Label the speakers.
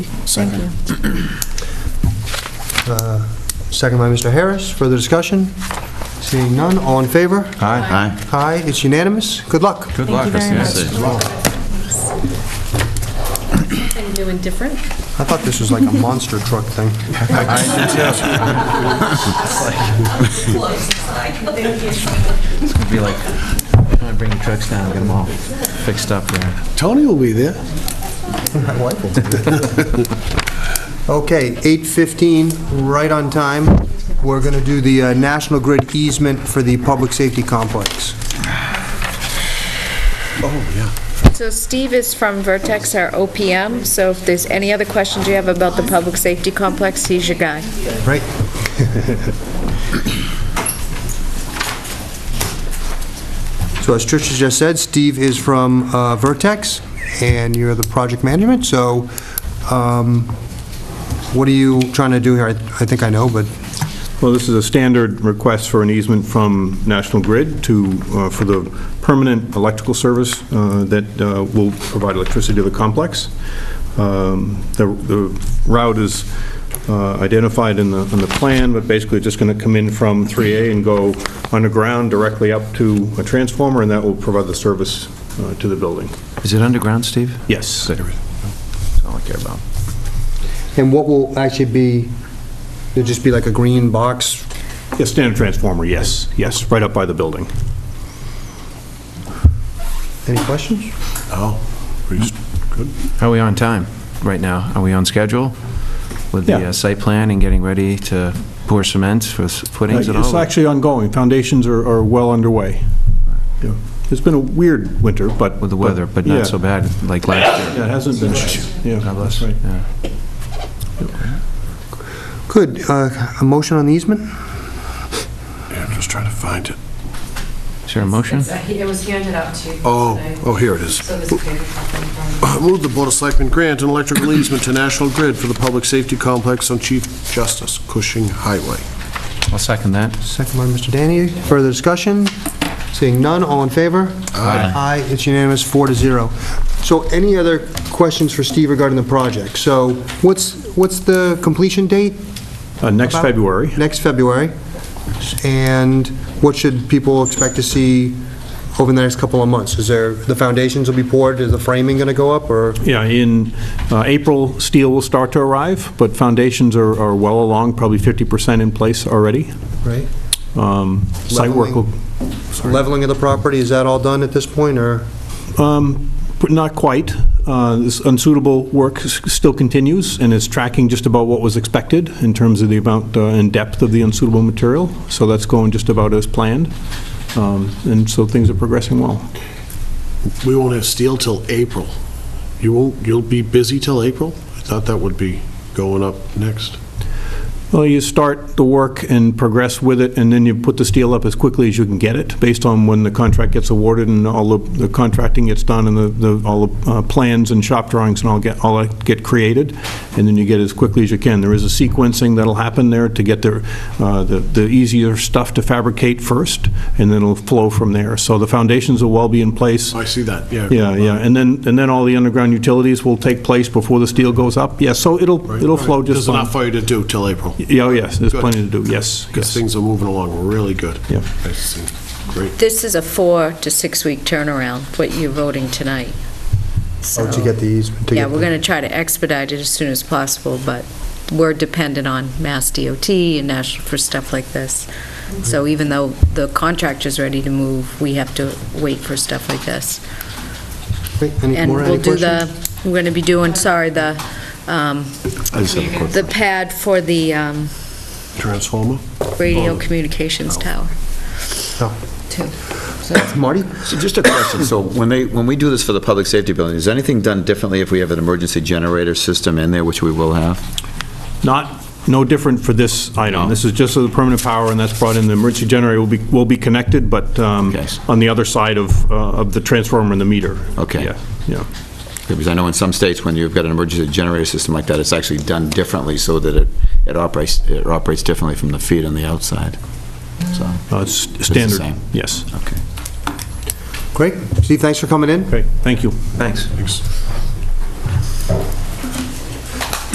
Speaker 1: Thank you.
Speaker 2: Uh, Second by Mr. Harris. Further discussion? Seeing none, all in favor?
Speaker 3: Hi. Hi.
Speaker 2: Aye, it's unanimous. Good luck.
Speaker 3: Good
Speaker 1: Thank
Speaker 3: luck.
Speaker 1: you very
Speaker 3: Yes,
Speaker 1: much.
Speaker 3: it-
Speaker 1: Something new and different.
Speaker 2: I thought this was like a monster truck thing.
Speaker 4: Be like, I'm gonna bring the trucks down, and get them all fixed up there.
Speaker 5: Tony will be there.
Speaker 2: My wife will do that. Okay, 8:15, right on time. We're going to do the uh, National Grid easement for the public safety complex.
Speaker 6: So Steve is from Vertex, our OPM, so if there's any other questions you have about the public safety complex, he's your guy.
Speaker 2: Right? So as Tricia just said, Steve is from uh, Vertex, and you're the project management, so um, what are you trying to do here? I I think I know, but,
Speaker 7: Well, this is a standard request for an easement from National Grid to, uh, for the permanent electrical service uh, that uh, will provide electricity to the complex. Um, The the route is uh, identified in the, in the plan, but basically just going to come in from 3A and go underground directly up to a transformer, and that will provide the service uh, to the building.
Speaker 4: Is it underground, Steve?
Speaker 7: Yes.
Speaker 4: That's all I care about.
Speaker 2: and what will actually be, it'll just be like a green box?
Speaker 7: Yes, standard transformer, yes, yes, right up by the building.
Speaker 2: Any questions?
Speaker 5: Oh, pretty s- good.
Speaker 4: Are we on time right now? Are we on schedule with the
Speaker 7: Yeah.
Speaker 4: uh, site plan and getting ready to pour cement for s- footings and all?
Speaker 7: It's actually ongoing. Foundations are, are well underway. Yeah. It's been a weird winter, but...
Speaker 4: With the weather, but not so bad like last year.
Speaker 7: Yeah, it hasn't been. Yeah,
Speaker 4: God bless.
Speaker 7: that's right.
Speaker 4: Yeah.
Speaker 2: Good, uh, a motion on the easement?
Speaker 5: Yeah, I'm just trying to find it.
Speaker 4: Is there a motion?
Speaker 8: It's- uh, It was handed out to you.
Speaker 5: Oh,
Speaker 8: tonight.
Speaker 5: oh, here Oh. it is.
Speaker 8: So there's a paper copy in front of you.
Speaker 5: Move the Board of Selectmen grant an electrical easement to National Grid for the public safety complex on Chief Justice Cushing Highway.
Speaker 4: I'll second that.
Speaker 2: Second by Mr. Danny. Further discussion? Seeing none, all in favor? Aye. Aye, it's unanimous, four to zero. So any other questions for Steve regarding the project? So what's, what's the completion date?
Speaker 7: Uh, Next
Speaker 2: About-
Speaker 7: February.
Speaker 2: Next February. And what should people expect to see over the next couple of months? Is there, the foundations will be poured, is the framing going to go up, or?
Speaker 7: Yeah, in uh, April, steel will start to arrive, but foundations are, are well along, probably 50% in place already.
Speaker 2: Right.
Speaker 7: Um, Site work will,
Speaker 2: Leveling of the property, is that all done at this point, or?
Speaker 7: um, but not quite. Uh, This unsuitable work s- still continues and is tracking just about what was expected in terms of the amount uh, and depth of the unsuitable material, so that's going just about as planned, Um, and so things are progressing well.
Speaker 5: We won't have steel till April. You won't, you'll be busy till April? I thought that would be going up next.
Speaker 7: Well, you start the work and progress with it, and then you put the steel up as quickly as you can get it, based on when the contract gets awarded and all the the contracting gets done and the, the all the uh, plans and shop drawings and all get, all that get created, and then you get it as quickly as you can. There is a sequencing that'll happen there to get the, uh, the the easier stuff to fabricate first, and then it'll flow from there. So the foundations will well be in place.
Speaker 5: Oh, I see that, yeah.
Speaker 7: Yeah, yeah, and then, and then all the underground utilities will take place before the steel goes up. Yeah, so it'll, it'll flow just
Speaker 5: There's
Speaker 7: fine.
Speaker 5: enough for you to do till April.
Speaker 7: Yeah, oh, yes, there's
Speaker 5: Good.
Speaker 7: plenty to do, yes,
Speaker 5: Because
Speaker 7: yes.
Speaker 5: things are moving along really good.
Speaker 7: Yeah.
Speaker 5: I see. Great.
Speaker 6: This is a four to six-week turnaround, what you're voting tonight. So,
Speaker 2: Or to get the easement? to
Speaker 6: Yeah,
Speaker 2: get
Speaker 6: we're
Speaker 2: the-
Speaker 6: going to try to expedite it as soon as possible, but we're dependent on Mass DOT and National for stuff like this.
Speaker 8: Mm-hmm.
Speaker 6: So even though the contractor's ready to move, we have to wait for stuff like this.
Speaker 2: Great. Any
Speaker 6: And
Speaker 2: more- any
Speaker 6: we'll do
Speaker 2: questions?
Speaker 6: the, we're going to be doing, sorry, the, um,
Speaker 5: I just have a quick
Speaker 6: the pad for the um,
Speaker 5: transformer.
Speaker 6: radio communications tower.
Speaker 2: Oh.
Speaker 6: Too.
Speaker 2: Marty?
Speaker 3: So just a question, so when they, when we do this for the public safety building, is anything done differently if we have an emergency generator system in there, which we will have?
Speaker 7: Not, no different for this item. This is just the permanent power, and that's brought in, the emergency generator will be, will be connected, but um,
Speaker 3: Yes.
Speaker 7: on the other side of, uh, of the transformer and the meter.
Speaker 3: Okay.
Speaker 7: Yeah, yeah.
Speaker 3: Because I know in some states, when you've got an emergency generator system like that, it's actually done differently so that it, it operates, it operates differently from the feed on the outside, so.
Speaker 7: Uh, It's standard.
Speaker 3: same.
Speaker 7: Yes.
Speaker 3: Okay.
Speaker 2: Great. Steve, thanks for coming in.
Speaker 7: Okay, thank you.
Speaker 4: Thanks.
Speaker 5: Thanks.